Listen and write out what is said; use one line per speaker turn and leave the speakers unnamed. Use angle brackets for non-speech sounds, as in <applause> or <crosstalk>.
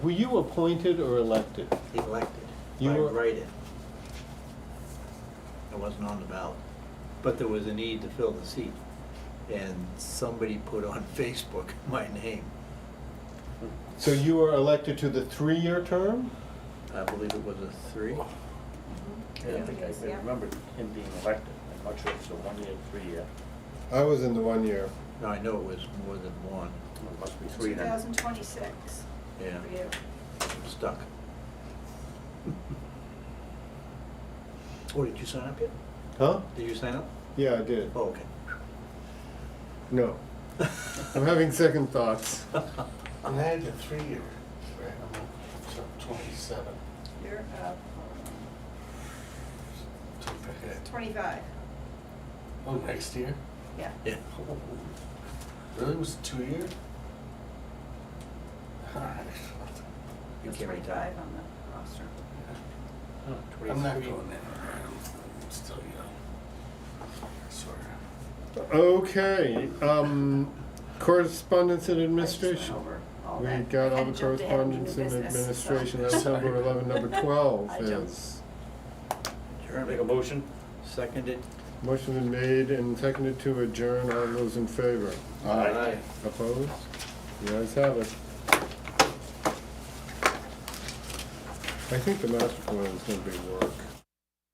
Were you appointed or elected?
elected
You
by
were-
write-in. It wasn't on the ballot, but there was a need to fill the seat. And somebody put on <laughs> Facebook my name.
So you were elected to the three-year term?
I believe it was a three.
I don't think I- I
Yeah.
remember him being elected. I'm not sure if it's a one-year, three-year.
I was in the one year.
No, I know it was more than one.
It must be three then.
2026.
Yeah,
for you.
<laughs>
I'm stuck. Oh, did you sign up yet?
Huh?
Did you sign up?
Yeah, I did.
Oh, okay.
No. I'm having second <laughs> thoughts.
And I had the three-year, right, I'm up to twenty-seven.
You're up
to pick it.
25,
Oh, next year?
yeah.
<laughs> Yeah.
Really, was it two-year? All right.
You
There's
can't retire.
25 on the roster.
I'm not
23.
going anywhere, I'm still young. I swear.
Okay, um, correspondence and
I just went
administration.
over all
We
that.
got all
And
the
jumped ahead into new
correspondence and
business, so-
administration. That's number eleven, number <laughs>
<laughs>
twelve
I jumped.
is.
Make a motion?
Seconded.
Motion been made and seconded to adjourn. All those in favor?
Aye.
Opposed? The ayes have it. I think the master plan is gonna be work.